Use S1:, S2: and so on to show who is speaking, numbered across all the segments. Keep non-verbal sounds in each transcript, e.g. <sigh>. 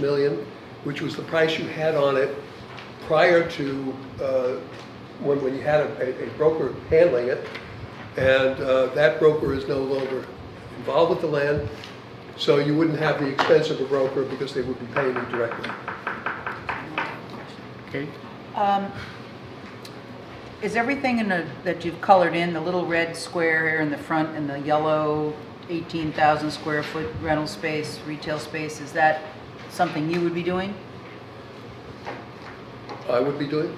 S1: million, which was the price you had on it prior to, uh, when, when you had a, a broker handling it. And uh, that broker is no longer involved with the land, so you wouldn't have the expense of a broker because they would be paying you directly.
S2: Okay,
S3: Um, Is everything in the, that you've colored in, the little red square here in the front and the yellow 18,000 square foot rental space, retail space, is that something you would be doing?
S1: I would be doing.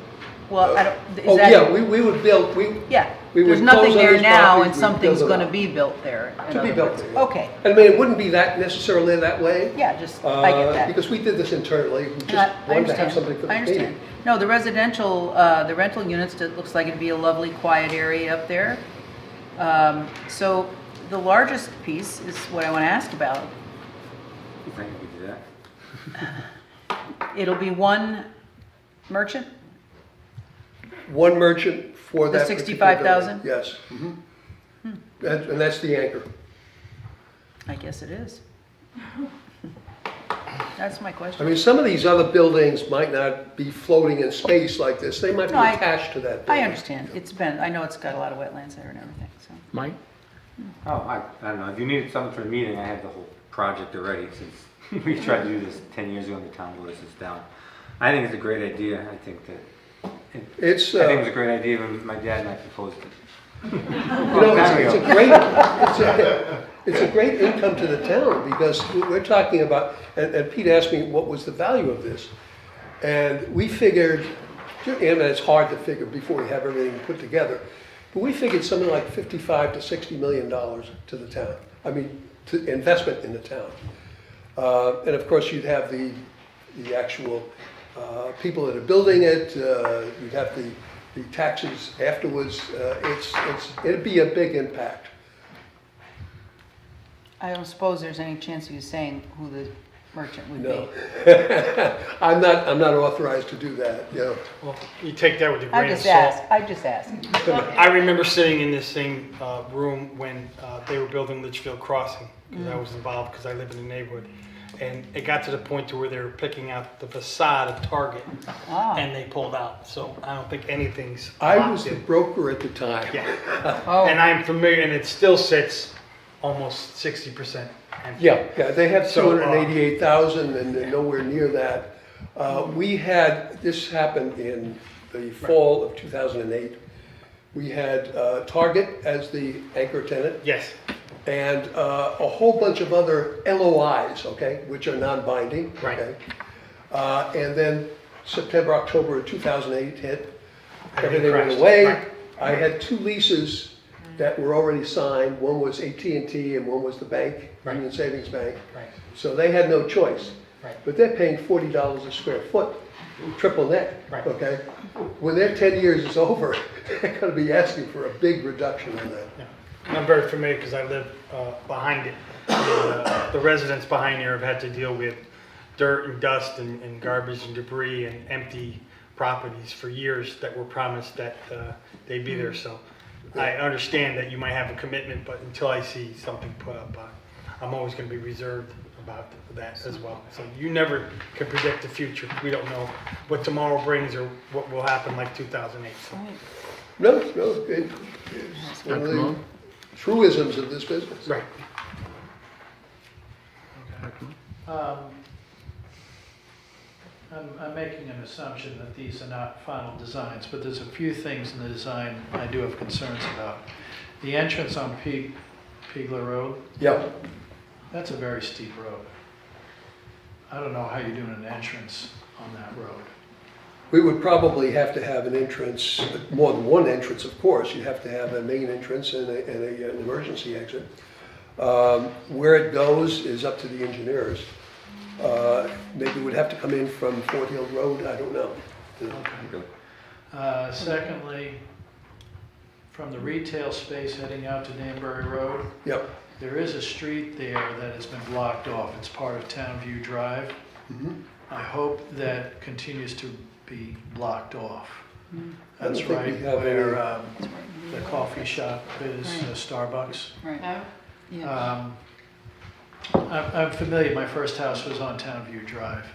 S3: Well, I don't,
S1: Oh,
S3: is that?
S1: yeah, we, we would build, we,
S3: Yeah,
S1: we would
S3: there's nothing
S1: close on
S3: there
S1: these
S3: now
S1: properties,
S3: and
S1: we would build
S3: something's
S1: them
S3: gonna
S1: up.
S3: be built there.
S1: To
S3: in
S1: be
S3: other
S1: built
S3: words.
S1: there, yeah.
S3: Okay,
S1: I mean, it wouldn't be that necessarily that way.
S3: yeah, just, I
S1: uh,
S3: get that.
S1: Because we did this internally, we
S3: And I- I
S1: just wanted to have
S3: understand.
S1: something for
S3: I
S1: the
S3: understand.
S1: meeting.
S3: No, the residential, uh, the rental units, it looks like it'd be a lovely quiet area up there. Um, So the largest piece is what I want to ask about.
S2: if I could do that.
S3: It'll be one merchant?
S1: One merchant for
S3: The
S1: that.
S3: 65,000?
S1: particular building,
S4: Mm-hmm.
S1: Yes. That- And that's the anchor.
S3: I guess it is. That's my
S1: I
S3: question.
S1: mean, some of these other buildings might not be floating in space like this. They might be
S3: No, I-
S1: attached to that
S3: I
S1: building.
S3: understand. It's been, I know it's got a lot of wetlands there and everything, so.
S2: Mike?
S4: Oh, I, I don't know, if you needed something for a meeting, I have the whole project already, since <laughs> we tried to do this ten years ago and the town voted us down. I think it's a great idea, I think that,
S1: It's,
S4: I think it's
S1: uh,
S4: a great idea when my dad and I proposed it.
S1: you know, it's, it's a great, it's a, it's a great income to the town because we- we're talking about, and, and Pete asked me what was the value of this. And we figured, and it's hard to figure before we have everything put together, but we figured something like fifty-five to sixty million dollars to the town. I mean, to investment in the town. Uh, and of course, you'd have the, the actual, uh, people that are building it, uh, you'd have the, the taxes afterwards. Uh, it's, it's, it'd be a big impact. <laughs>
S3: I don't suppose there's any chance of you saying who the merchant would
S1: No.
S3: be?
S1: I'm not, I'm not authorized to do that, you know.
S5: Well, you take that with a
S3: I
S5: grain of
S3: just
S5: salt.
S3: asked, I just asked.
S5: I remember sitting in this same uh, room when uh, they were building Litchfield Crossing, because
S3: Mm.
S5: I was involved, because I live in the neighborhood. And it got to the point to where they were picking out the facade of Target,
S3: Ah,
S5: and they pulled out. So I don't think anything's
S1: I was
S5: locked
S1: the
S5: in.
S1: broker at the time.
S5: Yeah, and
S3: oh,
S5: I'm familiar, and it still sits almost 60%. empty.
S1: Yeah, yeah, they have two
S5: So, uh,
S1: hundred and eighty-eight thousand and they're nowhere near that. Uh, we had, this happened in the fall of two thousand and eight. We had, uh, Target as the anchor tenant.
S5: Yes,
S1: and uh, a whole bunch of other LOIs, okay, which are non-binding.
S5: Right.
S1: okay? Uh, And then September, October of 2008 hit, everything went
S5: crashed,
S1: away.
S5: right.
S1: I had two leases that were already signed, one was at and t and one was the bank,
S5: Right.
S1: Union Savings Bank.
S5: right,
S1: So they had no choice.
S5: Right.
S1: But they're paying forty dollars a square foot, triple net,
S5: Right.
S1: okay? When their ten years is over, <laughs> they're gonna be asking for a big reduction on that.
S5: yeah. And I'm very familiar because I live uh, behind it. And, uh, The residents behind here have had to deal with dirt and dust and and garbage and debris and empty properties for years that were promised that uh, they'd be there. So I understand that you might have a commitment, but until I see something put up, uh, I'm always going to be reserved about that as well. So you never can predict the future. We don't know what tomorrow brings or what will happen like 2008. So
S1: No, no, it, it's one of
S2: Dr.
S1: the
S2: Moon?
S1: truisms of this business.
S5: Right.
S6: Um, I'm, I'm making an assumption that these are not final designs, but there's a few things in the design I do have concerns about. The entrance on Pe- Pegler Road,
S1: Yeah,
S6: that's a very steep road. I don't know how you're doing an entrance on that road.
S1: we would probably have to have an entrance, more than one entrance, of course. You'd have to have a main entrance and a, and a, an emergency exit. Um, where it goes is up to the engineers. Uh, maybe we'd have to come in from Fort Hill Road, I don't know.
S6: Uh, Secondly, from the retail space heading out to Danbury Road,
S1: Yep,
S6: there is a street there that has been blocked off. It's part of Town View Drive.
S1: Mhm.
S6: I hope that continues to be blocked off.
S1: I don't
S6: That's
S1: think we
S6: right
S1: have any-
S6: where um, the coffee shop is, uh, Starbucks.
S3: right, Uh, yeah.
S6: Um, I'm I'm familiar, my first house was on Town View Drive.